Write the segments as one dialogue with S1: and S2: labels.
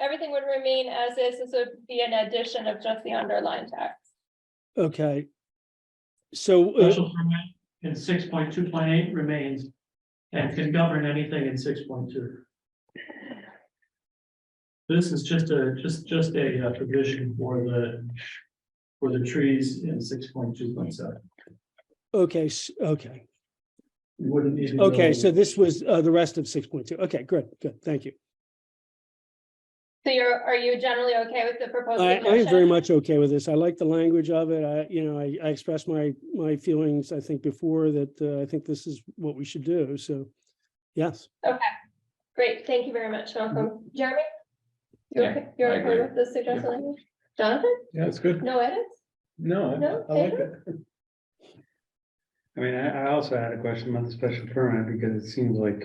S1: everything would remain as is, this would be an addition of just the underlying text.
S2: Okay. So, uh,
S3: Special permit in six point two point eight remains and can govern anything in six point two. This is just a, just, just a uh, provision for the, for the trees in six point two point seven.
S2: okay, s- okay,
S3: You wouldn't need. to go-
S2: okay, so this was uh, the rest of six point two. Okay, good, good, thank you.
S1: So you're, are you generally okay with the proposed?
S2: I, I am very
S1: suggestion?
S2: much okay with this. I like the language of it. I, you know, I, I expressed my, my feelings, I think before that, uh, I think this is what we should do, so. Yes,
S1: Great, thank you very much, Malcolm.
S2: Mm-hmm.
S1: Jeremy? You're
S4: Yeah,
S1: okay- You're
S4: I
S1: okay
S4: agree.
S1: with the suggested language? Jonathan?
S5: Yeah, it's good.
S1: No edits? No,
S5: No, I- I like it.
S6: I mean, I, I also had a question about the special permit because it seems like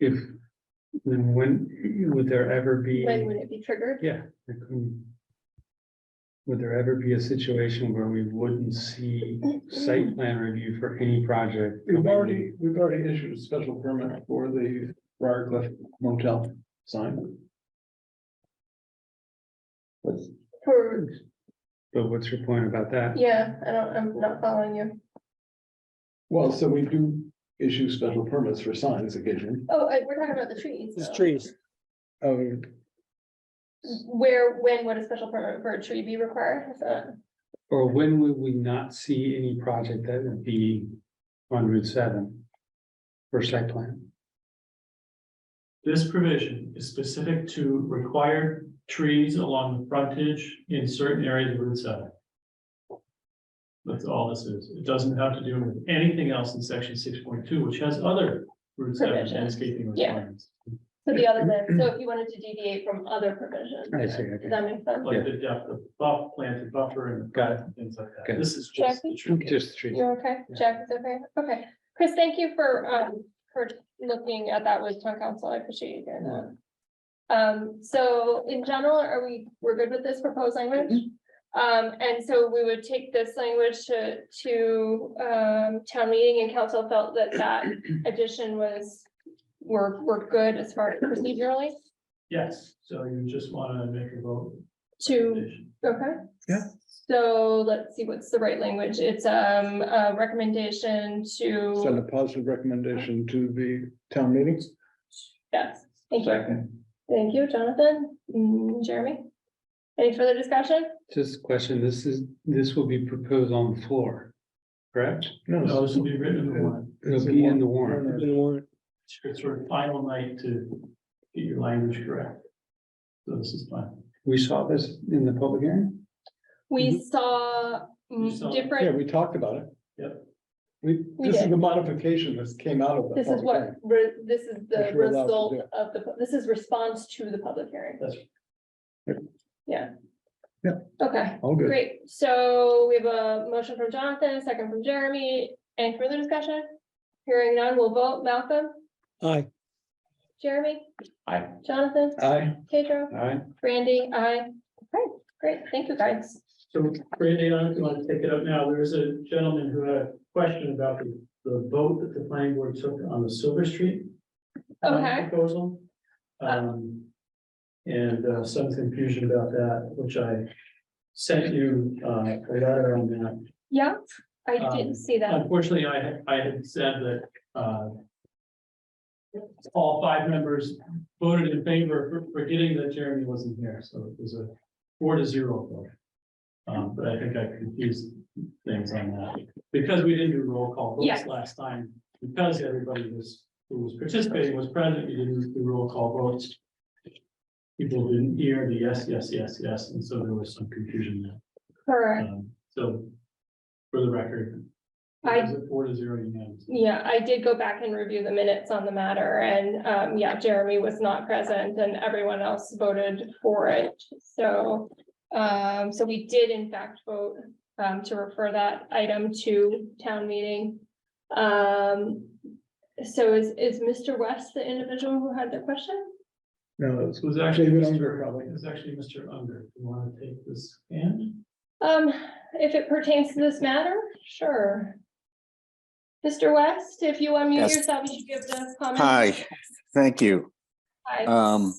S6: if, then when, would there ever be?
S1: When would it be triggered?
S6: Yeah. I couldn't- Would there ever be a situation where we wouldn't see site plan review for any project?
S5: We've already, we've already issued a special permit for the Briarcliff Motel sign. That's-
S1: For,
S6: But what's your point about that?
S1: yeah, I don't, I'm not following you.
S5: Well, so we do issue special permits for signs occasionally.
S1: Oh, I- we're talking about the trees.
S2: it's trees.
S5: Um,
S1: Where, when would a special permit for a tree be required? Is that-
S6: Or when would we not see any project that would be on Route seven? For site plan?
S3: This provision is specific to required trees along the frontage in certain areas of Route seven. That's all this is. It doesn't have to do with anything else in section six point two, which has other Route seven
S1: Provisions.
S3: landscaping
S1: Yeah.
S3: requirements.
S1: So the other than, so if you wanted to deviate from other provisions.
S6: I see, okay.
S1: Does that make sense?
S3: Like the depth of buff, planted buffer and
S6: Got it.
S3: things like that.
S6: Good.
S3: This is just. the tree.
S6: Just trees.
S1: You're okay? Jack is okay? Okay. Chris, thank you for, um, for looking at that with town council. I appreciate you doing that. Um, so in general, are we, we're good with this proposed language?
S5: Mm-hmm.
S1: Um, and so we would take this language to, to, um, town meeting and council felt that that addition was, were, were good as far as procedurally
S3: Yes, so you just wanna make a vote.
S1: to Okay.
S5: Yeah.
S1: So let's see, what's the right language? It's um a recommendation
S5: Send a
S1: to,
S5: positive recommendation to the town meetings.
S1: yes, thank you. Thank you, Jonathan, Mm, Jeremy. Any further discussion?
S6: Just a question, this is, this will be proposed on the floor, correct?
S3: No,
S5: No,
S3: this will be written in one.
S6: It'll be in the warrant.
S2: in the warrant.
S3: It's your sort of final night to get your language correct. So this is fine.
S6: We saw this in the public hearing?
S1: We saw mm,
S3: You saw-
S5: yeah,
S1: different,
S5: Mm-hmm. we talked about it.
S3: Yep.
S5: We,
S1: We
S5: this is
S1: did.
S5: the modification that came out of. the
S1: this is
S5: public
S1: what,
S5: hearing.
S1: re- this is the
S5: Which we're allowed to
S1: result
S5: do.
S1: of the, this is response to the public hearing.
S3: That's
S1: Yeah.
S5: Yeah.
S1: Okay,
S5: All good.
S1: great. So we have a motion from Jonathan, a second from Jeremy. Any further discussion? Hearing none, we'll vote. Malcolm?
S2: Aye,
S1: Jeremy?
S4: Aye.
S1: Jonathan?
S5: Aye.
S1: Pedro?
S6: All right.
S1: Brandy? I. Okay, great. Thank you, guys.
S3: So Randy, I don't know if you want to take it up now. There was a gentleman who had a question about the, the vote that the planning board took on the Silver Street. um,
S1: Okay.
S3: Proposal. Um, and uh, some confusion about that, which I sent you, uh, a letter on that.
S1: Yeah, I
S3: Um,
S1: didn't see that.
S3: Unfortunately, I had, I had said that, uh. All five members voted in favor, for- forgetting that Jeremy wasn't here, so it was a four to zero vote. Um, but I think I confused things on that, because we didn't do roll call
S1: Yes.
S3: votes last time, because everybody was, who was participating was present, we didn't do roll call votes. People didn't hear the yes, yes, yes, yes, and so there was some confusion there.
S1: Correct.
S3: Um, So, for the record. it
S1: I-
S3: was a Four to zero unanimous.
S1: Yeah, I did go back and review the minutes on the matter and, um, yeah, Jeremy was not present and everyone else voted for it. So, um, so we did in fact vote, um, to refer that item to town meeting. Um, so is, is Mr. West the individual who had the question?
S5: No,
S3: This was actually
S5: David Unger,
S3: Mr.
S5: probably.
S3: It was actually Mr. Unger. Do you want to take this hand?
S1: Um, if it pertains to this matter, sure. Mr. West, if you unmute
S7: Yes.
S1: yourself, you should give the comment.
S7: Hi, thank you.
S1: Hi.
S7: Um,